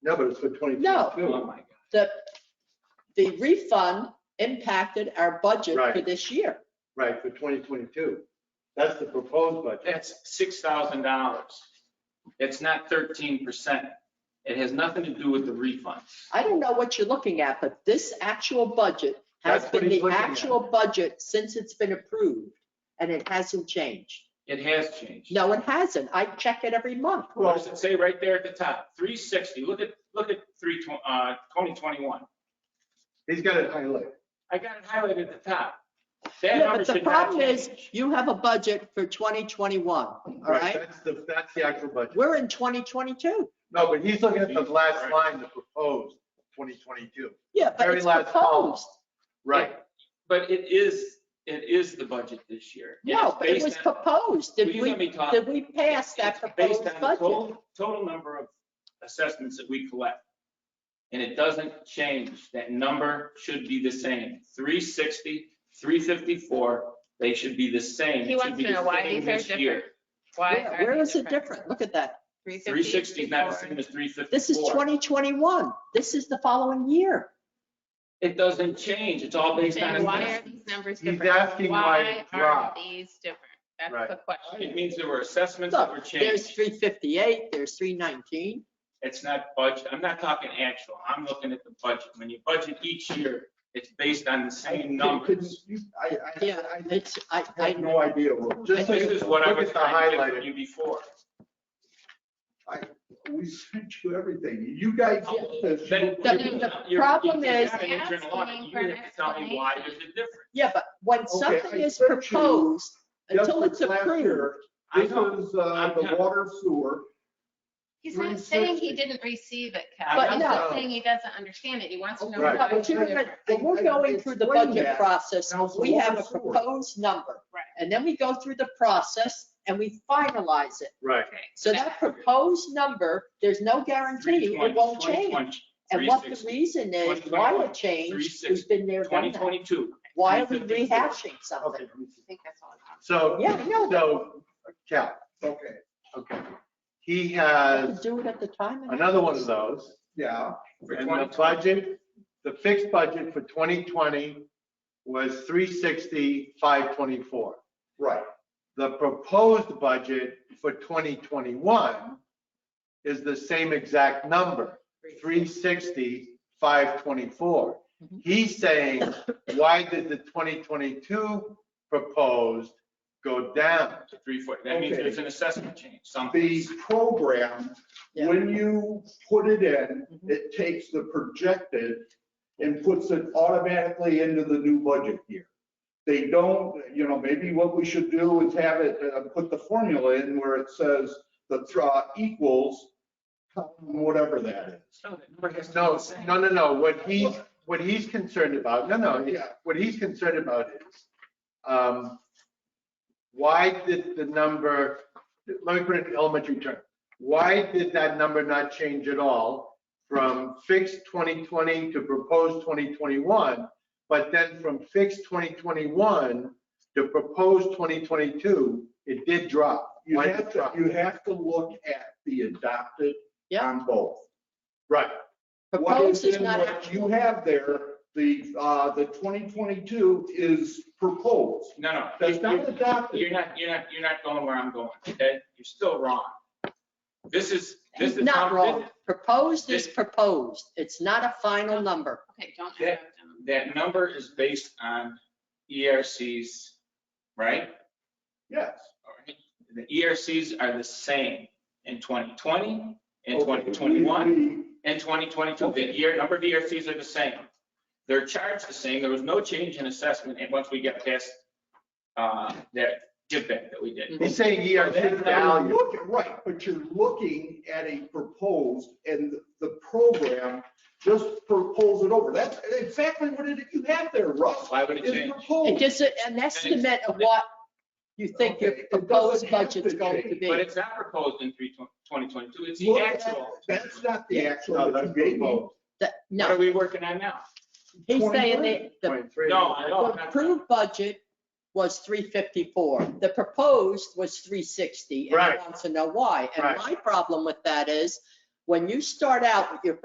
No, but it's for 2022. No. Oh, my God. The, the refund impacted our budget for Right. this year. Right, for 2022. That's the proposed budget. That's six thousand dollars. It's not thirteen percent. It has nothing to do with the refund. I don't know what you're looking at, but this actual budget has That's what been he's the looking at. actual budget since it's been approved, and it hasn't changed. It has changed. No, it hasn't. I check it every month. What does it say right there at the top? Three sixty. Look at, look at three, tw- uh, twenty twenty-one. He's got it highlighted. I got it highlighted at the top. That Yeah, number but the should not problem is, change. you have a budget for 2021, all right? That's the, that's the actual budget. We're in 2022. No, but he's looking at the last Right. line, the proposed 2022. Yeah, but Very it's last column. proposed. Right, But it is, it is the budget this year. And No, it's but it based was on- proposed. Will Did you we, let me talk? did we pass that It's proposed based on the budget? total- Total number of assessments that we collect. And it doesn't change. That number should be the same. 360, 354, they should be the same. He It wants should be to know the why same these are this year. different. Why Yeah, are Where they is it different? Look at that. 360 is not the 354. same as 354. This is 2021. This is the following year. It doesn't change. It's all based on. Then why are assessment. these numbers He's different? asking why it Why are dropped. these different? That's Right. the It question. means there were assessments that were Look, there's changed. 358, there's 319. It's not budget. I'm not talking actual. I'm looking at the budget. When you budget each year, it's based on the same numbers. I, I, Yeah, it's, I, I I have no idea. Will. Just This is what I look was at the trying to highlighted. give you before. We sent you everything. You guys. Then The- you're- the you're- problem you're is- not an internal audit. You have to tell me why there's a difference. Yeah, but when Okay, something I is sent you- proposed, until it's approved, I This know. is uh, I'm the kinda- water sewer. He's not saying he 360. didn't receive it, Cal. But He's no. not saying he doesn't understand it. He wants to know Right. why. no, but it's you're different. gonna- when we're going through the Explain budget that. process, Now, it's we have a water sewer. proposed number. Right. And then we go through the process and we finalize it. Right, Okay. So that proposed number, there's no guarantee it won't change. And 320, what the 360, reason is, why 361, it changed, 360, who's been there, done that. 2022. Why are we 354. rehashing something? okay. I think that's all I'm talking So, Yeah, I know. so, Cal, Okay, okay. He We has Uh, could Do it at the time. and- another one of those. yeah. For And the 2020. budget, the fixed budget for 2020 was 360, 524. Right. The proposed budget for 2021 is the same exact number, 360, 524. Mhm. He's saying, why did the 2022 proposed go down? To 340. That means Okay. there's an assessment change, something. The program, Yeah. when you put it in, Mhm. it takes the projected and puts it automatically into the new budget year. They don't, you know, maybe what we should do is have it, uh, put the formula in where it says the thr- uh, equals whatever that is. No, no, no, no, what he's, what he's concerned about, no, no, he- Yeah. what he's concerned about is, um, why did the number, let me put it in elementary term, why did that number not change at all from fixed 2020 to proposed 2021, but then from fixed 2021 to proposed 2022, it did drop? You Why did it have to, drop? you have to look at the adopted Yeah. on both. Right, What is Proposed is in not what you actual. have there, the, uh, the 2022 is proposed. No, no. That's not You're- adopted. You're not, you're not, you're not going where I'm going, okay? You're still wrong. This is, this is. Not how- wrong. Proposed is This- proposed. It's not a final number. Okay, don't That- interrupt him. That number is based on ERCs, right? Yes. Alright, The ERCs are the same in 2020, in Okay, 2021, we- we- and 2022. The Okay. year, number of ERCs are the same. They're charged the same. There was no change in assessment and once we got past uh, that give back that we did. he's saying ERC Now, value. you're looking, right, but you're looking at a proposed and the program just propose it over. That's exactly what it, you have there, Russ. Why would it is change? It proposed. gives it an estimate of what you think your Okay, it doesn't proposed have to budget's going to change, But be. it's not proposed in 3 2022. It's the Look at- actual. That's not the actual. No, that that's you gave me. proposed. That- What are No, we working on now? he's saying 21. that the 0.3. No, I the don't. I'm not- approved budget was 354. The proposed was 360. And he Right. wants to know why. And Right. my problem with that is, When you start out with your